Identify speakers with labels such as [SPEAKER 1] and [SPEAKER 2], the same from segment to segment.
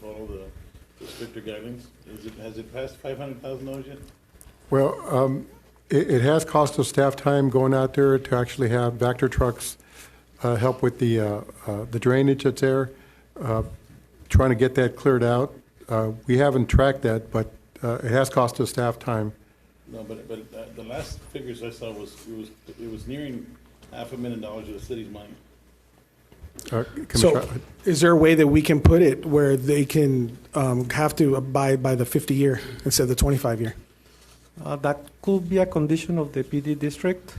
[SPEAKER 1] follow the the stricter guidelines? Is it, has it passed five hundred thousand dollars yet?
[SPEAKER 2] Well, um, it, it has cost us staff time going out there to actually have Vector trucks uh, help with the, uh, uh, the drainage that's there, uh, trying to get that cleared out. Uh, We haven't tracked that, but uh, it has cost us staff time.
[SPEAKER 1] No, but, but uh, the last figures I saw was, it was, it was nearing half a million dollars of the city's money.
[SPEAKER 2] Uh,
[SPEAKER 3] So
[SPEAKER 2] Commissioner-
[SPEAKER 3] is there a way that we can put it where they can um, have to abide by the 50-year instead of the 25-year?
[SPEAKER 4] Uh, That could be a condition of the PD district.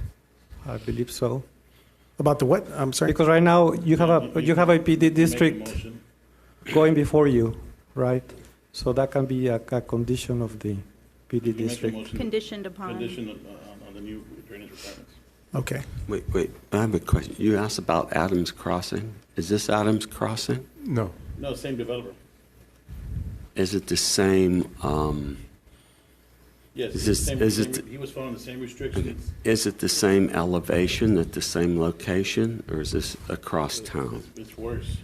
[SPEAKER 4] I believe so.
[SPEAKER 3] About the what? I'm sorry.
[SPEAKER 4] Because right now, you have a, you have a PD
[SPEAKER 1] Make a
[SPEAKER 4] district
[SPEAKER 1] motion.
[SPEAKER 4] going before you, right? So that can be a, a condition of the PD
[SPEAKER 1] Make a
[SPEAKER 4] district.
[SPEAKER 1] motion.
[SPEAKER 5] Conditioned upon,
[SPEAKER 1] Condition on- on, on the new drainage requirements.
[SPEAKER 3] Okay.
[SPEAKER 6] Wait, wait, I have a question. You asked about Adams Crossing. Is this Adams Crossing?
[SPEAKER 2] No,
[SPEAKER 1] No, same developer.
[SPEAKER 6] Is it the same, um,
[SPEAKER 1] Yes.
[SPEAKER 6] Is
[SPEAKER 1] it's the
[SPEAKER 6] this-
[SPEAKER 1] same-
[SPEAKER 6] is it-
[SPEAKER 1] same- He was following the same restrictions.
[SPEAKER 6] is it the same elevation at the same location, or is this across town?
[SPEAKER 1] It's- It's worse,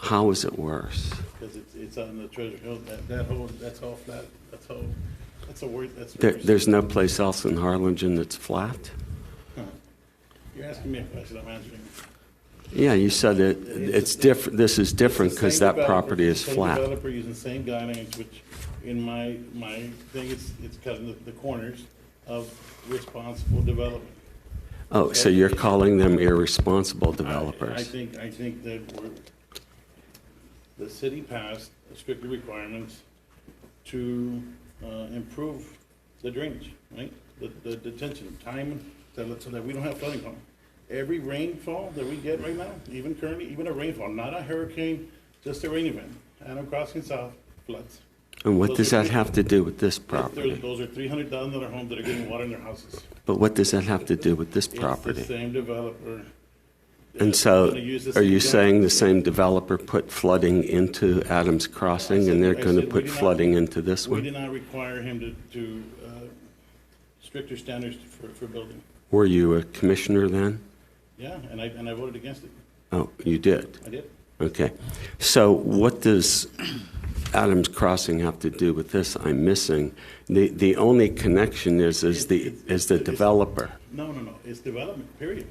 [SPEAKER 6] How is it worse?
[SPEAKER 1] because it's, it's on the Treasure Hill, that, that whole, that's all flat, that's all, that's a word, that's
[SPEAKER 6] There,
[SPEAKER 1] worse.
[SPEAKER 6] there's no place else in Harlingen that's flat?
[SPEAKER 1] You're asking me a question, I'm answering.
[SPEAKER 6] Yeah, you said it, it's different, this is different
[SPEAKER 1] It's the
[SPEAKER 6] because
[SPEAKER 1] same
[SPEAKER 6] that
[SPEAKER 1] developer-
[SPEAKER 6] property is
[SPEAKER 1] same
[SPEAKER 6] flat.
[SPEAKER 1] developer using same guidelines, which in my, my thing, it's, it's cutting the- the corners of responsible development.
[SPEAKER 6] Oh, so you're calling them irresponsible
[SPEAKER 1] I- I
[SPEAKER 6] developers?
[SPEAKER 1] think, I think that we're, the city passed stricter requirements to uh, improve the drainage, right? The, the detention time, so that, so that we don't have flooding problem. Every rainfall that we get right now, even currently, even a rainfall, not a hurricane, just a rain event, Adam Crossing South floods.
[SPEAKER 6] And what does that have to do with this
[SPEAKER 1] That's-
[SPEAKER 6] property?
[SPEAKER 1] Those are three hundred thousand dollar homes that are getting water in their houses.
[SPEAKER 6] But what does that have to do with this
[SPEAKER 1] It's the
[SPEAKER 6] property?
[SPEAKER 1] same developer.
[SPEAKER 6] And so,
[SPEAKER 1] Gonna use the
[SPEAKER 6] are
[SPEAKER 1] same
[SPEAKER 6] you
[SPEAKER 1] guy.
[SPEAKER 6] saying the same developer put flooding into Adams Crossing, and they're
[SPEAKER 1] I
[SPEAKER 6] going to
[SPEAKER 1] said we
[SPEAKER 6] put
[SPEAKER 1] did not-
[SPEAKER 6] flooding into this
[SPEAKER 1] We did
[SPEAKER 6] one?
[SPEAKER 1] not require him to, to, uh, stricter standards for, for building.
[SPEAKER 6] Were you a commissioner then?
[SPEAKER 1] Yeah, and I, and I voted against it.
[SPEAKER 6] Oh, you did?
[SPEAKER 1] I did.
[SPEAKER 6] Okay. So what does Adams Crossing have to do with this? I'm missing. The, the only connection is, is the, is the developer.
[SPEAKER 1] No, no, no, it's development, period.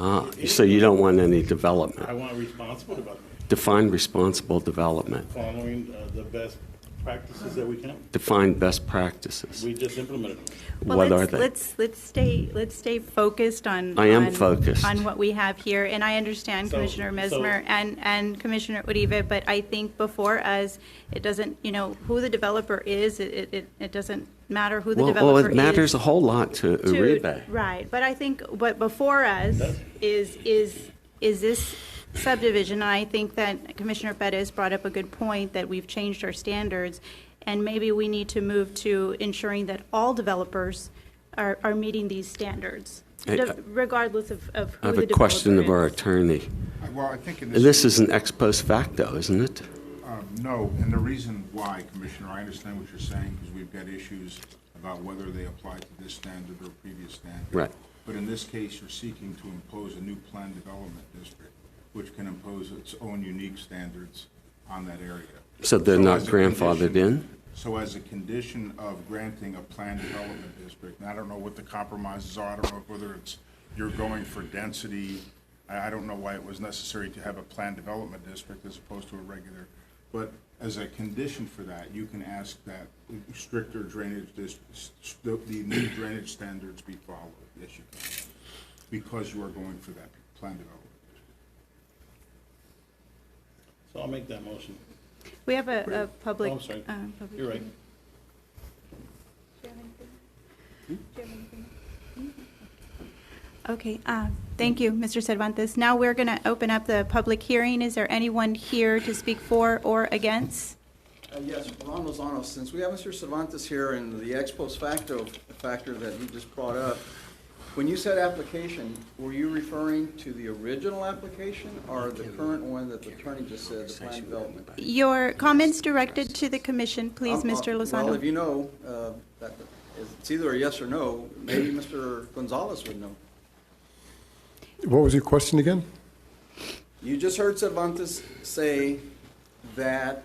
[SPEAKER 6] Ah, so you don't want any development.
[SPEAKER 1] I want responsible development,
[SPEAKER 6] Define responsible development.
[SPEAKER 1] following, uh, the best practices that we can.
[SPEAKER 6] Define best practices.
[SPEAKER 1] We just implemented them.
[SPEAKER 5] well,
[SPEAKER 6] What are
[SPEAKER 5] let's,
[SPEAKER 6] they?
[SPEAKER 5] let's, let's stay, let's stay focused on.
[SPEAKER 6] I am
[SPEAKER 5] on-
[SPEAKER 6] focused.
[SPEAKER 5] On what we have here, and I understand
[SPEAKER 1] So-
[SPEAKER 5] Commissioner
[SPEAKER 1] so-
[SPEAKER 5] Mesmer and, and Commissioner Uribe, but I think before us, it doesn't, you know, who the developer is, it, it- it, it doesn't matter who the
[SPEAKER 6] Well,
[SPEAKER 5] developer
[SPEAKER 6] well,
[SPEAKER 5] is.
[SPEAKER 6] it matters a whole lot to
[SPEAKER 5] to-
[SPEAKER 6] Uribe.
[SPEAKER 5] Right, but I think what before us is, is, is this subdivision, and I think that Commissioner Bettis brought up a good point, that we've changed our standards, and maybe we need to move to ensuring that all developers are, are meeting these standards,
[SPEAKER 6] Hey,
[SPEAKER 5] de-
[SPEAKER 6] I-
[SPEAKER 5] regardless of, of
[SPEAKER 6] I
[SPEAKER 5] who
[SPEAKER 6] have
[SPEAKER 5] the
[SPEAKER 6] a
[SPEAKER 5] developer
[SPEAKER 6] question of our
[SPEAKER 5] is.
[SPEAKER 6] attorney.
[SPEAKER 7] Well, I think in this,
[SPEAKER 6] This is an ex post facto, isn't it?
[SPEAKER 7] um, no, and the reason why, Commissioner, I understand what you're saying, because we've got issues about whether they apply to this standard or previous standard.
[SPEAKER 6] Right.
[SPEAKER 7] But in this case, you're seeking to impose a new planned development district, which can impose its own unique standards on that area.
[SPEAKER 6] So they're not
[SPEAKER 7] as a
[SPEAKER 6] grandfathered
[SPEAKER 7] condition-
[SPEAKER 6] in?
[SPEAKER 7] So as a condition of granting a planned development district, and I don't know what the compromises are, I don't know whether it's, you're going for density, I, I don't know why it was necessary to have a planned development district as opposed to a regular, but as a condition for that, you can ask that stricter drainage dis, the the new drainage standards be followed, yes, you can, because you are going for that planned development.
[SPEAKER 1] So I'll make that motion.
[SPEAKER 5] We have a, a public.
[SPEAKER 1] Oh, I'm sorry.
[SPEAKER 5] um, public-
[SPEAKER 1] You're right.
[SPEAKER 5] Okay, uh, thank you, Mr. Cervantes. Now we're going to open up the public hearing. Is there anyone here to speak for or against?
[SPEAKER 8] Uh, Yes, Ron Lozano, since we have Mr. Cervantes here and the ex post facto factor that he just brought up, when you said application, were you referring to the original application or the current one that the attorney just said, the plan development?
[SPEAKER 5] Your comments directed to the commission, please,
[SPEAKER 8] Um, uh,
[SPEAKER 5] Mr.
[SPEAKER 8] Well, if
[SPEAKER 5] Lozano.
[SPEAKER 8] you know, uh, that- it's either a yes or no, maybe Mr. Gonzalez would know.
[SPEAKER 2] what was your question again?
[SPEAKER 8] You just heard Cervantes say that